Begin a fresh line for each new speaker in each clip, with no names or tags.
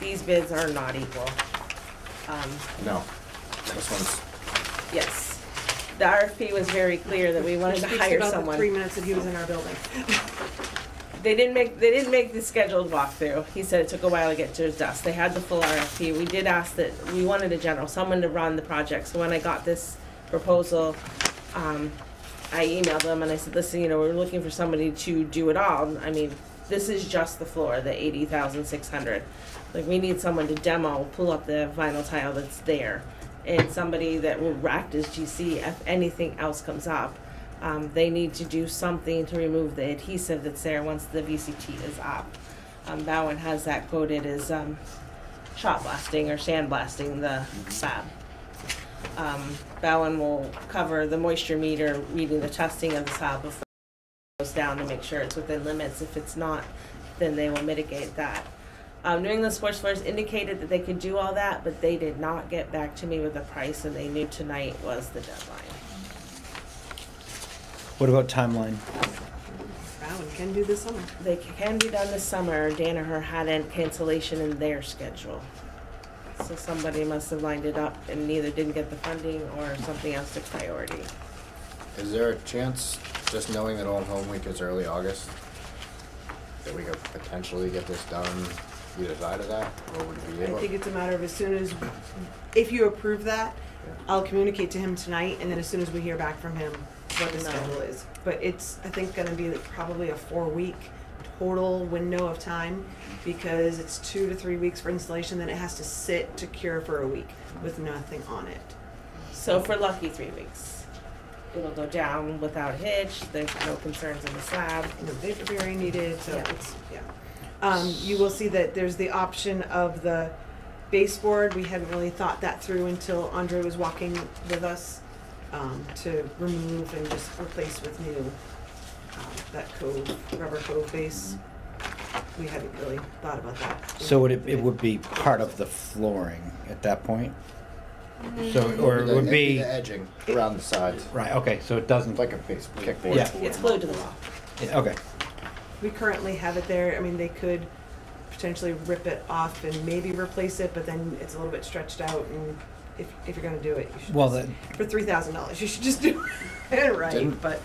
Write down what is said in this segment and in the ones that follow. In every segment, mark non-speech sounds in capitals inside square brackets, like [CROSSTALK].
these bids are not equal. Um,
No, this one's,
yes, the RFP was very clear that we wanted to
Speaks
hire
about the
someone.
Three minutes that he was in our building.
They didn't make, they didn't make the scheduled walkthrough. He said it took a while to get to his desk. They had the full RFP. We did ask that, we wanted a general, someone to run the project. So when I got this proposal, um, I emailed them and I said, listen, you know, we're looking for somebody to do it all. I mean, this is just the floor, the eighty thousand six hundred. Like, we need someone to demo, pull up the vinyl tile that's there. And somebody that will act as GC if anything else comes up. Um, they need to do something to remove the adhesive that's there once the VCT is up. Um, Bowen has that quoted as, um, shot blasting or sandblasting the fab. Um, Bowen will cover the moisture meter, reading the testing of the sob before it goes down to make sure it's within limits. If it's not, then they will mitigate that. Um, New England Sports Floors indicated that they could do all that, but they did not get back to me with a price, and they knew tonight was the deadline.
What about timeline?
Wow, we can do this summer.
They can be done this summer. Danaher had a cancellation in their schedule. So somebody must have lined it up and either didn't get the funding or something else took priority.
is there a chance, just knowing that Old Home Week is early August, that we could potentially get this done either side of that, or would we be
I
able?
think it's a matter of as soon as, if you approve that,
Yeah.
I'll communicate to him tonight, and then as soon as we hear back from him, what the
No.
schedule is. But it's, I think, gonna be probably a four-week total window of time, because it's two to three weeks for installation, then it has to sit to cure for a week with nothing on it.
So if we're lucky, three weeks. It'll go down without a hitch. There's no concerns in the slab.
no vapor barrier needed, so
Yeah.
it's, yeah. Um, you will see that there's the option of the baseboard, we hadn't really thought that through until Andre was walking with us, um, to remove and just replace with new, um, that cove, rubber cove base. We hadn't really thought about that.
Mm-hmm. So would it, it would be part of the flooring at that point? So, or it
The-
would
the-
be,
The edging around the sides,
right, okay, so it doesn't,
like a base, kickboard.
Yeah.
It's glued to the wall.
yeah, okay.
We currently have it there, I mean, they could potentially rip it off and maybe replace it, but then it's a little bit stretched out and if, if you're gonna do it, you should
Well,
just-
that,
for three thousand dollars. You should just do [LAUGHS] it right.
Didn't-
But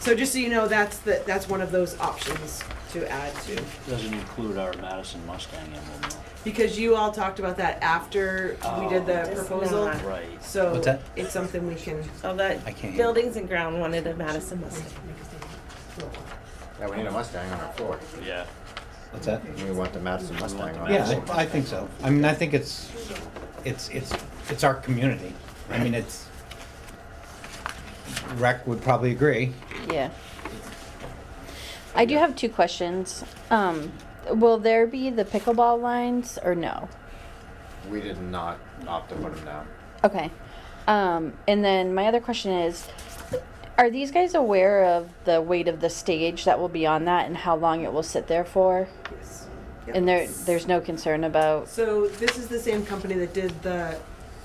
so just so you know, that's the that's one of those options to add to
Doesn't include our Madison Mustang emblem,
because you all talked about that after we did the
Oh.
proposal.
It's
though. Right.
So
What's that?
it's something we can.
So that
I can't hear.
buildings and ground wanted a Madison Mustang.
Yeah, we need a Mustang on our floor,
Yeah.
what's that?
we want the Madison Mustang on our
Yeah,
floor.
I, I think so. I mean, I think it's, it's, it's, it's our community. I mean, it's, rec would probably agree.
Yeah. I do have two questions. Um, will there be the pickleball lines or no?
We did not opt to put them down.
Okay. Um, and then my other question is, are these guys aware of the weight of the stage that will be on that and how long it will sit there for?
Yes.
And there, there's no concern about.
So this is the same company that did the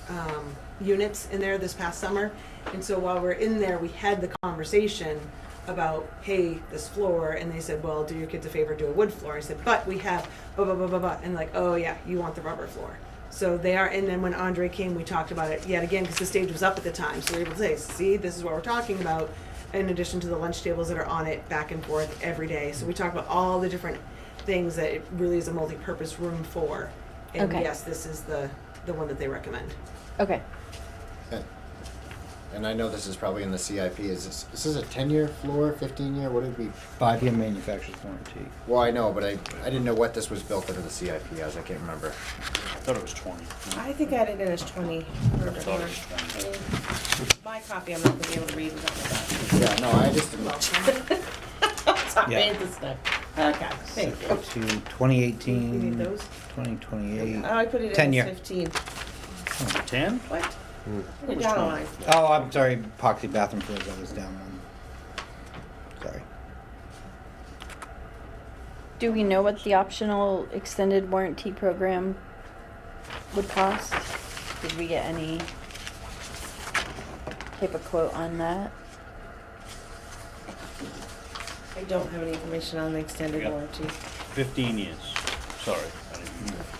um, units in there this past summer. And so while we're in there, we had the conversation about, hey, this floor, and they said, well, do your kids a favor, do a wood floor. I said, but we have blah, blah, blah, blah, blah, and like, oh yeah, you want the rubber floor. So they are, and then when Andre came, we talked about it yet again, because the stage was up at the time, so we were able to say, see, this is what we're talking about, in addition to the lunch tables that are on it back and forth every day. So we talk about all the different things that it really is a multi-purpose room for. And
Okay.
yes, this is the, the one that they recommend.
Okay.
And- And I know this is probably in the CIP, is this, this is a ten-year floor, fifteen-year, what did we,
Five-year manufacturer's warranty.
well, I know, but I, I didn't know what this was built into the CIP as, I can't remember.
I thought it was twenty.
I think I did it as twenty. or-
thought it was
or- My copy, I'm not gonna be able to read it on the back.
Yeah, no, I just didn't know.
[LAUGHS] Sorry,
Yeah.
it's stuck. Okay, thank you.
To 2018.
You need those?
2028.
Oh, I put it
Ten
in
year.
as fifteen.
Ten?
What? Put it
Which
down a
one?
line.
Oh, I'm sorry, epoxy bathroom floors, I was down on. Sorry.
Do we know what the optional extended warranty program would cost? Did we get any type of quote on that?
I don't have any information on the extended
Yeah.
warranty.
Fifteen years. Sorry. I didn't-